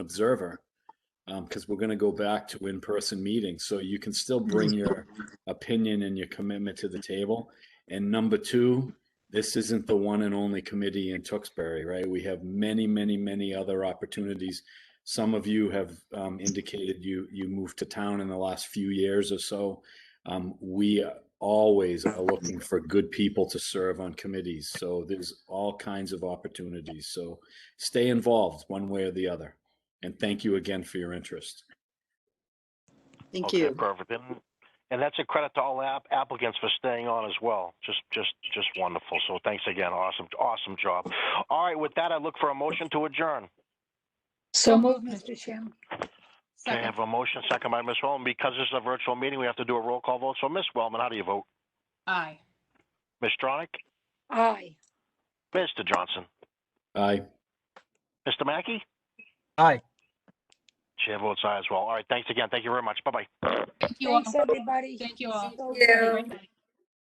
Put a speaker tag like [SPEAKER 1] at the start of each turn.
[SPEAKER 1] observer because we're going to go back to in-person meetings. So you can still bring your opinion and your commitment to the table. And number two, this isn't the one and only committee in Tewksbury, right? We have many, many, many other opportunities. Some of you have um, indicated you you moved to town in the last few years or so. Um, we always are looking for good people to serve on committees. So there's all kinds of opportunities. So stay involved one way or the other. And thank you again for your interest.
[SPEAKER 2] Thank
[SPEAKER 3] Okay,
[SPEAKER 2] you.
[SPEAKER 3] Perfect. And, and that's a credit to all app- applicants for staying on as well. Just, just, just wonderful. So thanks again. Awesome, awesome job. All right, with that, I look for a motion to adjourn.
[SPEAKER 4] So moved, Mr. Chairman.
[SPEAKER 3] Okay, I have a motion, second by Ms. Wellman. Because this is a virtual meeting, we have to do a roll call vote. So Ms. Wellman, how do you vote?
[SPEAKER 4] Aye.
[SPEAKER 3] Ms. Stronach?
[SPEAKER 4] Aye.
[SPEAKER 3] Mr. Johnson?
[SPEAKER 1] Aye.
[SPEAKER 3] Mr. Mackey?
[SPEAKER 5] Aye.
[SPEAKER 3] Chair votes aye as well. All right, thanks again. Thank you very much. Bye-bye.
[SPEAKER 6] Thank you all.
[SPEAKER 4] Thanks, everybody.
[SPEAKER 6] Thank you all.
[SPEAKER 4] Thank you.
[SPEAKER 6] Bye.